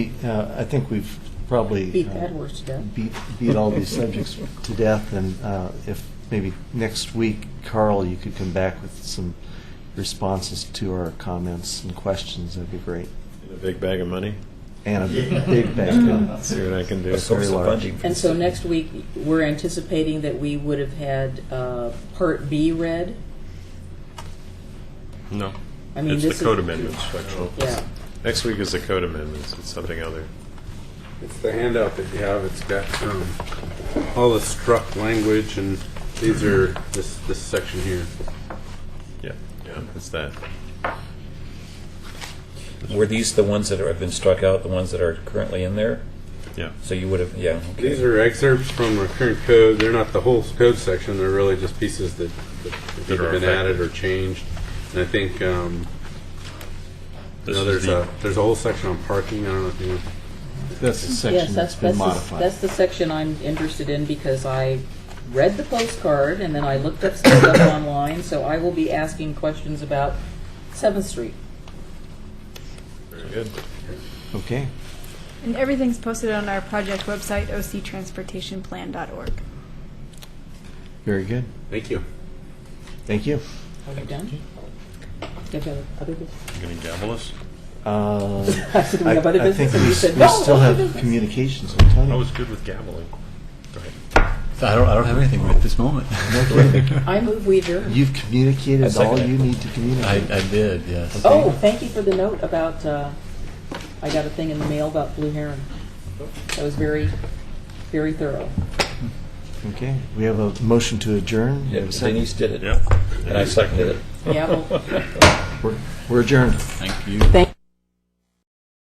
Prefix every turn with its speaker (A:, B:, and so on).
A: Uh, I think we've probably.
B: Beat
A: uh,
B: that horse to death.
A: Beat, beat all these subjects to death, and uh, if maybe next week, Carl, you could come back with some responses to our comments and questions, that'd be great.
C: A big bag of money.
A: And a big bang.
C: Let's See what I can do.
D: A source
A: Very
D: of
A: large.
D: funding. for
B: And
D: the
B: so
D: city.
B: next week, we're anticipating that we would have had uh, Part B read.
C: No.
B: I mean,
C: it's
B: this is-
C: the code amendments section.
B: Yeah,
C: Next week is the code amendments. It's something other.
E: It's the handout that you have. It's got um, all the struck language, and these are this this section here.
C: Yeah. Yeah. It's that.
D: Were these the ones that are- have been struck out, the ones that are currently in there?
C: Yeah.
D: So you would have, yeah, okay.
E: These are excerpts from our current code. They're not the whole code section. They're really just pieces that, that have
C: That
E: either
C: are
E: been
C: affected.
E: added or changed. And I think um, you
C: This
E: know,
C: is
E: there's
C: the-
E: a there's a whole section on parking. I don't know if you want
A: That's the
B: yes,
A: section
B: that's,
A: that's been
B: that's, the-
A: modified.
B: that's the section I'm interested in because I read the postcard and then I looked up some stuff online, so I will be asking questions about Seventh Street.
C: Very good.
A: Okay,
F: And everything's posted on our project website, octransportationplan.org.
A: very good.
E: Thank you.
A: Thank you.
B: Are we done? Do you have other business?
C: You gonna gavel us?
A: Uh,
B: I said, "Do we
A: I
B: have other
A: I
B: business?"
A: think
B: And
A: we
B: you
A: s-
B: said,
A: we
B: "No,
A: still
B: other
A: have
B: business."
A: communications with
C: I
A: Tony.
C: was good with gaveling. Go ahead.
G: I don't, I don't have anything at this moment.
B: I move we adjourn.
A: You've
D: I
A: communicated
D: second
A: all
D: it.
A: you need to
G: I,
A: communicate.
G: I did, yes.
B: Oh, thank you for the note about, uh, I got a thing in the mail about blue heron. That was very, very thorough.
A: Okay, we have a motion to adjourn. We
D: Yeah,
A: have a second.
D: Denise did it,
C: Yeah.
D: and I seconded it.
B: Gavel.
A: We're- We're adjourned.
G: Thank you.
B: Thank